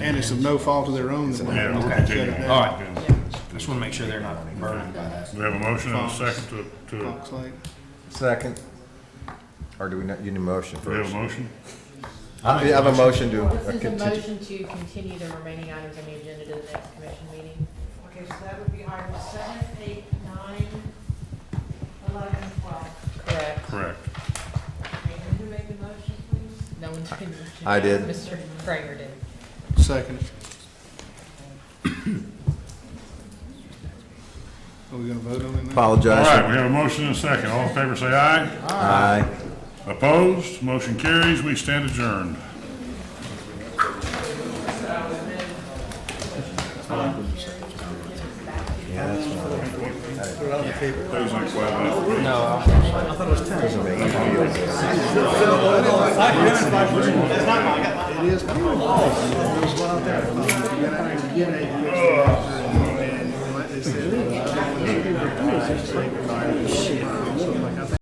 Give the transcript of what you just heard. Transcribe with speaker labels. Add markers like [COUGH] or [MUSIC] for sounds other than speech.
Speaker 1: And it's of no fault of their own that we
Speaker 2: Yeah,
Speaker 1: have
Speaker 2: we'll
Speaker 1: to shut
Speaker 2: continue.
Speaker 1: it
Speaker 3: All
Speaker 1: down.
Speaker 3: right. Just want to make sure they're not burning by that.
Speaker 2: We have a motion and a second to, to,
Speaker 1: Fox Lake.
Speaker 4: Second. Or do we not, you need a motion
Speaker 2: we have
Speaker 4: first?
Speaker 2: a motion?
Speaker 4: I have a motion to.
Speaker 5: Well, This is a
Speaker 4: continue.
Speaker 5: motion to continue the remaining items on the agenda to the next commission meeting.
Speaker 6: Okay, so that would be items seven, eight, nine, eleven, twelve.
Speaker 5: Correct.
Speaker 2: Correct.
Speaker 6: Okay, and who made the motion, please?
Speaker 5: No one did.
Speaker 4: I did.
Speaker 5: Mr. Kramer did.
Speaker 3: [COUGHS]
Speaker 1: Second. Are we gonna vote on it now?
Speaker 2: All right,
Speaker 4: Apologize.
Speaker 2: we have a motion and a second. All in favor, say aye.
Speaker 4: Aye.
Speaker 2: Opposed? Motion carries. We stand adjourned. Things like that.